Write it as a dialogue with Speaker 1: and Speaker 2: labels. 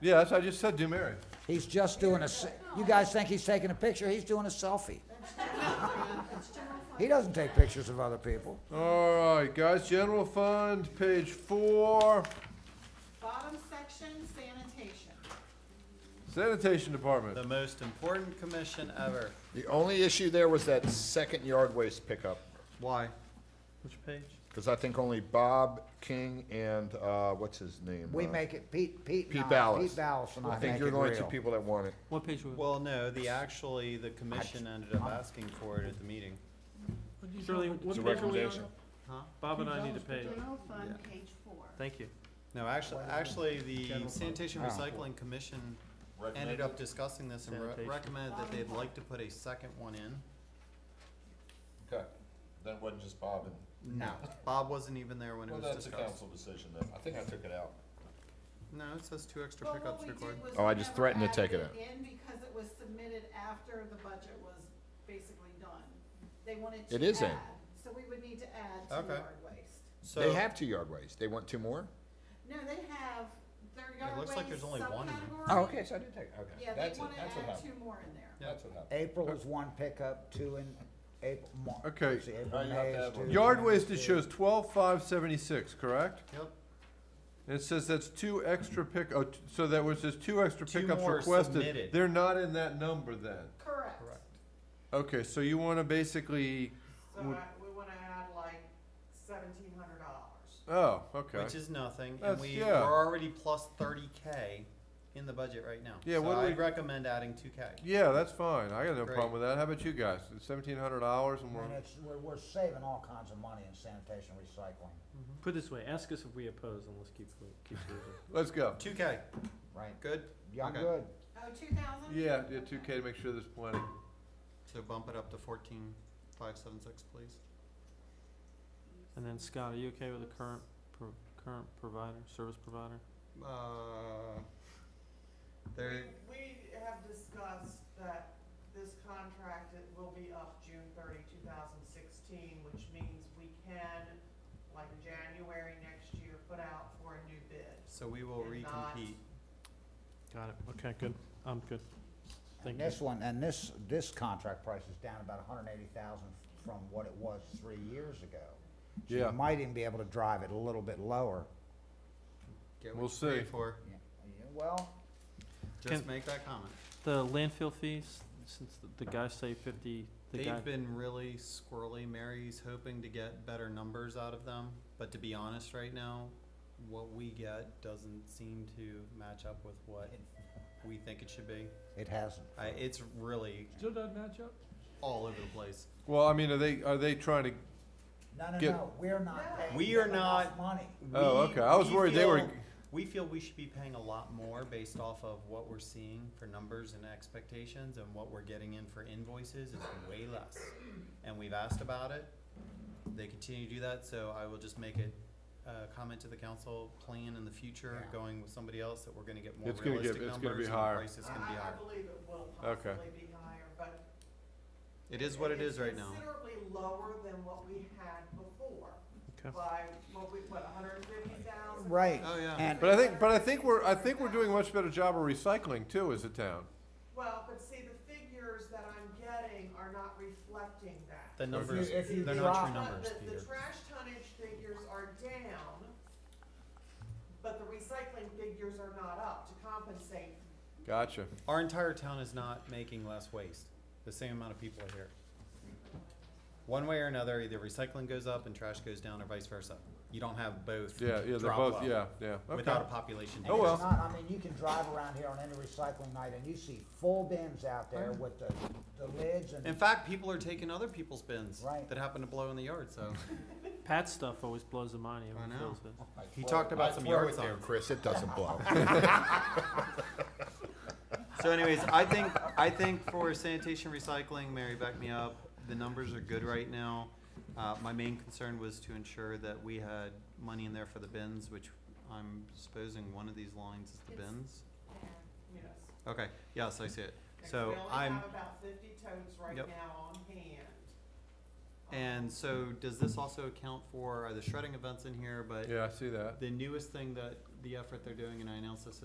Speaker 1: Yeah, that's, I just said do Mary.
Speaker 2: He's just doing a, se- you guys think he's taking a picture? He's doing a selfie. He doesn't take pictures of other people.
Speaker 1: All right, guys, general fund, page four,
Speaker 3: Bottom section, sanitation.
Speaker 1: sanitation
Speaker 4: The
Speaker 1: department.
Speaker 4: most important commission ever.
Speaker 5: The only issue there was that second yard waste pickup,
Speaker 4: Why? Which page?
Speaker 5: because I think only Bob King and, uh, what's his name?
Speaker 2: We
Speaker 5: uh,
Speaker 2: make it, Pete, Pete and
Speaker 5: Pete
Speaker 2: I-
Speaker 5: Ballas.
Speaker 2: Pete Ballas and I
Speaker 5: I
Speaker 2: make
Speaker 5: think
Speaker 2: it
Speaker 5: you're the only two
Speaker 2: real.
Speaker 5: people that want it.
Speaker 6: What page was
Speaker 4: Well, no, the, actually, the commission ended up asking for it at the meeting.
Speaker 6: it? Shirley, what page are we on?
Speaker 4: Huh?
Speaker 6: Bob and I need a page.
Speaker 3: General fund,
Speaker 4: Yeah.
Speaker 3: page four.
Speaker 6: Thank you.
Speaker 4: No, actually, actually, the sanitation
Speaker 2: Oh.
Speaker 4: recycling commission ended up discussing this and re-
Speaker 6: Sanitation.
Speaker 4: recommended that they'd like to put a second one in.
Speaker 5: Okay, that wasn't just Bob and,
Speaker 4: No. Bob wasn't even there when it was discussed.
Speaker 5: decision, though. I think I took it out.
Speaker 4: No, it says two extra
Speaker 3: But what
Speaker 4: pickups
Speaker 3: we did
Speaker 4: required.
Speaker 3: was
Speaker 5: Oh, I
Speaker 3: we
Speaker 5: just
Speaker 3: never
Speaker 5: threatened to
Speaker 3: added
Speaker 5: take it
Speaker 3: it
Speaker 5: out.
Speaker 3: In because it was submitted after the budget was basically done. They wanted to add.
Speaker 5: It is in.
Speaker 3: So we would need to add to
Speaker 4: Okay.
Speaker 3: yard waste.
Speaker 5: They
Speaker 4: So,
Speaker 5: have two yard waste. They want two more?
Speaker 3: No, they have their yard waste
Speaker 4: looks like there's only one in there.
Speaker 3: subcategory.
Speaker 2: Oh,
Speaker 5: Okay, so I did take, it. okay.
Speaker 3: Yeah,
Speaker 5: That's
Speaker 3: they
Speaker 5: it.
Speaker 3: wanna
Speaker 5: That's what
Speaker 3: add
Speaker 5: happened.
Speaker 3: two more in there.
Speaker 5: That's what happened.
Speaker 2: April is one pickup, two in April, Mar-
Speaker 1: Okay.
Speaker 2: let's see, April,
Speaker 5: Now you have
Speaker 2: May
Speaker 5: to
Speaker 2: is
Speaker 5: have
Speaker 2: two.
Speaker 5: one.
Speaker 1: Yard waste, it shows twelve five seventy-six, correct?
Speaker 4: yep,
Speaker 1: And it says that's two extra pick, oh, t- so that was just two extra
Speaker 4: Two
Speaker 1: pickups
Speaker 4: more
Speaker 1: requested.
Speaker 4: submitted.
Speaker 1: They're not in that number then.
Speaker 3: Correct.
Speaker 4: Correct.
Speaker 1: Okay, so you wanna basically,
Speaker 7: So
Speaker 1: Would-
Speaker 7: I, we wanna add like seventeen hundred dollars.
Speaker 1: oh, okay.
Speaker 4: which is nothing, and
Speaker 1: That's-
Speaker 4: we,
Speaker 1: yeah.
Speaker 4: we're already plus thirty K in the budget right now.
Speaker 1: Yeah, what do
Speaker 4: So
Speaker 1: we-
Speaker 4: I'd recommend adding two K.
Speaker 1: Yeah, that's fine. I got no
Speaker 4: Great.
Speaker 1: problem with that. How about you guys? Seventeen hundred dollars and we're,
Speaker 2: And it's, we're, we're saving all kinds of money in sanitation recycling,
Speaker 6: Put it this way, ask us if we oppose and let's keep, keep moving.
Speaker 1: let's go.
Speaker 4: Two K,
Speaker 2: right?
Speaker 4: good?
Speaker 2: Yeah, I'm
Speaker 4: Okay.
Speaker 2: good.
Speaker 3: Oh, two thousand?
Speaker 1: Yeah, yeah, two K to make sure there's plenty.
Speaker 4: So bump it up to fourteen five seven six, please.
Speaker 6: And then Scott, are you okay with the current, pro- current provider, service provider?
Speaker 4: Uh, there,
Speaker 7: We, we have discussed that this contract it will be up June 30, 2016, which means we can, like January next year, put out for a new bid.
Speaker 4: so we will
Speaker 7: And not-
Speaker 4: recompete.
Speaker 6: Got it, okay, good, I'm good. Thank
Speaker 2: And
Speaker 6: you.
Speaker 2: this one, and this, this contract price is down about hundred and eighty thousand from what it was three years ago. So
Speaker 1: Yeah.
Speaker 2: you might even be able to drive it a little bit lower.
Speaker 4: Get
Speaker 1: We'll
Speaker 4: what you pay
Speaker 1: see.
Speaker 4: for.
Speaker 2: Yeah, yeah, Well,
Speaker 4: Just
Speaker 6: Can-
Speaker 4: make that comment.
Speaker 6: The landfill fees, since the- the guys say fifty, the guy,
Speaker 4: They've been really squirrely. Mary's hoping to get better numbers out of them, but to be honest, right now, what we get doesn't seem to match up with what we think it should be.
Speaker 2: it hasn't.
Speaker 4: I, it's really
Speaker 6: Still doesn't match up?
Speaker 4: all over the place.
Speaker 1: Well, I mean, are they, are they trying to,
Speaker 2: No, no,
Speaker 1: Get-
Speaker 2: no, we're not paying
Speaker 4: We are
Speaker 2: them enough
Speaker 4: not-
Speaker 2: Money.
Speaker 1: Oh,
Speaker 4: We-
Speaker 1: okay. I was
Speaker 4: we
Speaker 1: worried they were-
Speaker 4: feel- We feel we should be paying a lot more based off of what we're seeing for numbers and expectations, and what we're getting in for invoices is way less. And we've asked about it. They continue to do that, so I will just make it a comment to the council, plan in the future,
Speaker 2: Yeah.
Speaker 4: going with somebody else, that we're gonna get more
Speaker 1: It's gonna get-
Speaker 4: realistic
Speaker 1: it's
Speaker 4: numbers
Speaker 1: gonna be
Speaker 4: and the
Speaker 1: higher.
Speaker 4: price is gonna be
Speaker 7: I, I
Speaker 4: higher.
Speaker 7: believe it will
Speaker 1: Okay.
Speaker 7: possibly be higher, but.
Speaker 4: It is what it is right now.
Speaker 7: Considerably lower than what we had before,
Speaker 6: Okay,
Speaker 7: by, what we, what, hundred and fifty thousand?
Speaker 2: Right.
Speaker 4: Oh, yeah.
Speaker 2: And
Speaker 1: but I think, but I think we're, I think we're doing a much better job of recycling too as a town.
Speaker 7: Well, but see, the figures that I'm getting are not reflecting that.
Speaker 4: The numbers,
Speaker 2: if you
Speaker 4: they're not
Speaker 2: drop-
Speaker 4: true numbers,
Speaker 7: But The,
Speaker 4: Peter.
Speaker 7: the trash tonnage figures are down, but the recycling figures are not up to compensate.
Speaker 1: Gotcha.
Speaker 4: Our entire town is not making less waste, the same amount of people are here. One way or another, either recycling goes up and trash goes down or vice versa. You don't have both
Speaker 1: Yeah, yeah, they're
Speaker 4: drop
Speaker 1: both,
Speaker 4: low
Speaker 1: yeah, yeah, okay.
Speaker 4: Without a population.
Speaker 2: And
Speaker 1: Oh, well.
Speaker 2: it's not, I mean, you can drive around here on any recycling night and you see full bins out there with the, the lids
Speaker 4: In
Speaker 2: and,
Speaker 4: fact, people are taking other people's bins
Speaker 2: Right.
Speaker 4: that happen to blow in the yard, so.
Speaker 6: Pat's stuff always blows the mind,
Speaker 4: I
Speaker 6: everyone
Speaker 4: know.
Speaker 6: feels this.
Speaker 4: He talked about some yard signs.
Speaker 5: Chris, it doesn't blow.
Speaker 4: So anyways, I think, I think for sanitation recycling, Mary, back me up, the numbers are good right now. Uh, my main concern was to ensure that we had money in there for the bins, which I'm supposing one of these lines is the
Speaker 3: It's-
Speaker 4: bins.
Speaker 7: Yes.
Speaker 4: Okay, yes, I see it.
Speaker 7: Like,
Speaker 4: So
Speaker 7: We only
Speaker 4: I'm,
Speaker 7: have about fifty totes right
Speaker 4: Yep.
Speaker 7: now on hand.
Speaker 4: and so does this also account for uh, the shredding events in here? But
Speaker 1: Yeah, I see that.
Speaker 4: the newest thing that, the effort they're doing, and I announced this